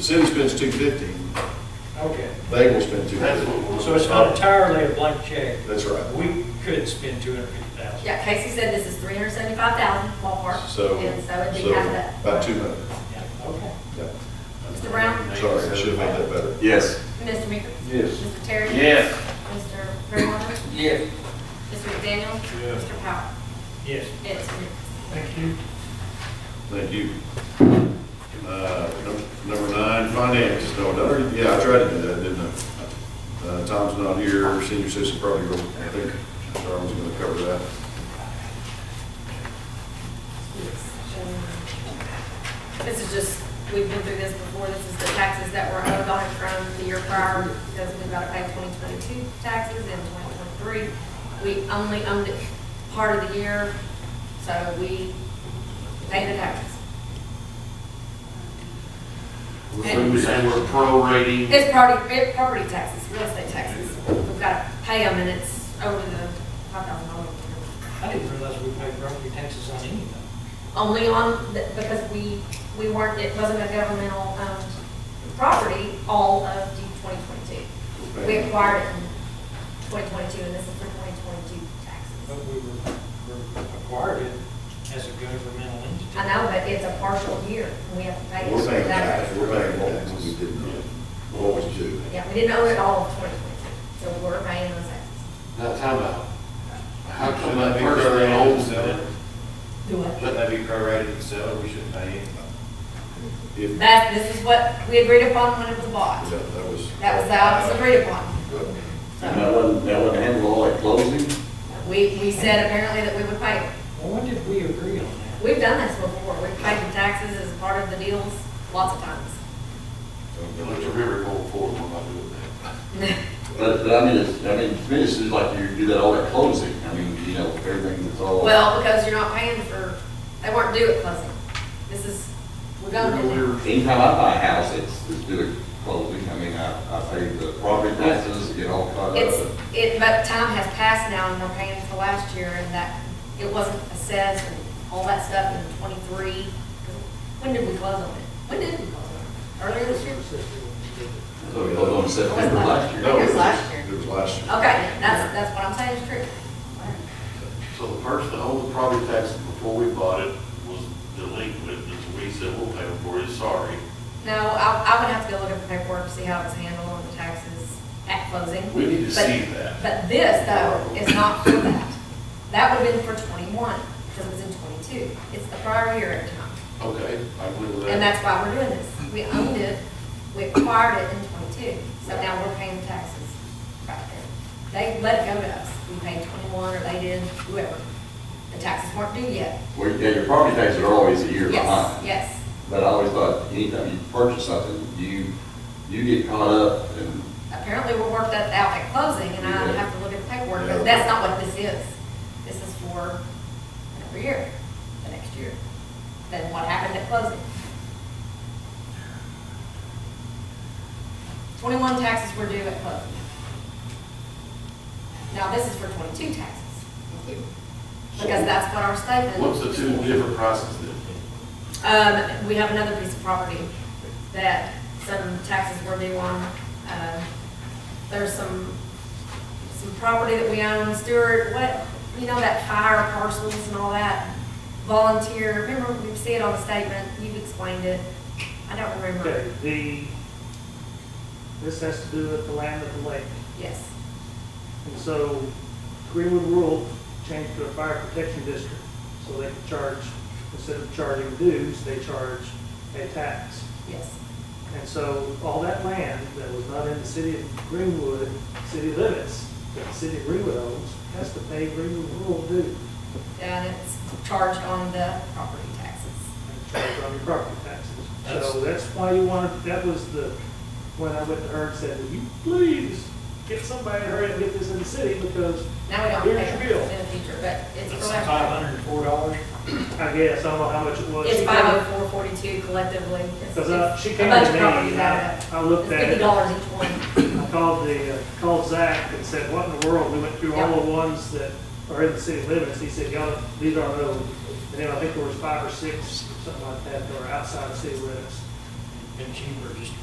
The city spends two fifty, Okay, they will spend two That's fifty. what we're. so it's not entirely a blank check. That's right. We could spend two hundred fifty thousand. Yeah, Casey said this is three hundred seventy-five thousand ballpark. So, And so it'd so be half that. about two hundred. Yeah, okay. Yeah. Mr. Brown? Sorry, I should have made that better. Yes. Mr. Meeker? Yes. Mr. Terry? Yes. Mr. Redwater? Yes. Mr. McDaniel? Yes. Mr. Powell? Yes. It's Thank you. Thank you. Uh, num- Number nine, finance, no, I already- yeah, I tried to do that, didn't I? Uh, Tom's not here, senior citizen probably, will- I think Charles is gonna cover that. This is just, we've been through this before, this is the taxes that were owed on it from the year prior, because we've got to pay twenty twenty-two taxes and twenty twenty-three. We only owned it part of the year, so we pay the taxes. So you're saying we're prorating, It's property, it- property taxes, real estate taxes. We've got to pay them and it's over the five thousand dollars. I didn't realize we paid property taxes on anything. Only on, the- because we, we weren't, it wasn't a governmental, um, property all of twenty twenty-two. We acquired it in twenty twenty-two and this is for twenty twenty-two But taxes. we were, were acquired it as a governmental entity. I know, but it's a partial year and we have to pay it. We're paying That- tax, we're paying taxes, we didn't, know. what was due. Yeah, we didn't own it all of twenty twenty-two, so we're paying those taxes. now time out. How come that person that owns it, Do what? Shouldn't that be prorated and settled, we shouldn't pay it? If, yeah, That, this is what we agreed upon when it was bought. that was. That was, that was agreed upon. And that wasn't, that wasn't handled all at closing? We, we said apparently that we would pay. it. Well, when did we agree on that? We've done this before. We've paid the taxes as part of the deals lots of times. You let the river go forward, we're not doing that. But, but I mean, it's, I mean, to me, it's just like you do that all at closing. I mean, you know, everything that's all. Well, because you're not paying for, they weren't due at closing. This is, we're going to. Anytime I buy a house, it's, it's due at closing. I mean, I, I pay the property taxes, get all caught It's, up. it, but time has passed now and we're paying for last year and that, it wasn't assessed and all that stuff in twenty-three. When did we close on it? When did we close on it? Earlier this year? So it was on September last year. No. It was last year. It was last year. Okay, that's, that's what I'm saying is true. So the person that owned the property taxes before we bought it was delinquent, and so we said, we'll pay him for it, sorry. No, I, I would have to go look at the paperwork, to see how it's handled on the taxes at closing. We need to But- see that. But this, though, is not for that. That would have been for twenty-one, because it was in twenty-two. It's the prior year at the time. Okay, I believe that. And that's why we're doing this. We owned it, we acquired it in twenty-two, so now we're paying taxes right there. They let it go to us. We paid twenty-one, or they did, whoever. The taxes weren't due yet. Well, yeah, your property taxes are always a year Yes, behind. yes. But I always thought, anytime you purchase something, you, you get caught up and apparently we worked that out at closing, and I Yeah. have to look at the paperwork, Yeah. but that's not what this is. This is for another year, the next year, than what happened at closing. Twenty-one taxes were due at closing. Now, this is for twenty-two taxes, because that's what our statement. What's the two different prices then? Um, we have another piece of property that some taxes were due on. Um, There's some, some property that we own, Stewart, what, you know, that fire parcels and all that? Volunteer, remember, we see it on the statement, you've explained it. I don't Okay, remember. the, this has to do with the land of the lake. Yes, And so Greenwood Rural changed to a fire protection district. So they can charge, instead of charging dues, they charge a tax. yes. And so all that land that was not in the city of Greenwood, city limits, that the city of Greenwood owns, has to pay Greenwood Rural due And it's charged on the property taxes. and charge on your property taxes. So that's why you wanted, that was the, when I went to her and said, will you please get somebody to hurry and get this in the city because Now we don't Here's pay your it bill. in the future, but it's. It's for last- five hundred and four dollars. I guess, I don't know how much it was. It's five oh four forty-two collectively. It's- Because I, she it's came a bunch to of me, properties and out of I it. I looked It's at fifty it, dollars each one. I called the, uh, called Zach and said, what in the world? We went through all the ones that are in the city limits. He said, y'all, these aren't those. And then I think there was five or six, something like that, that were outside the city limits. been cheaper just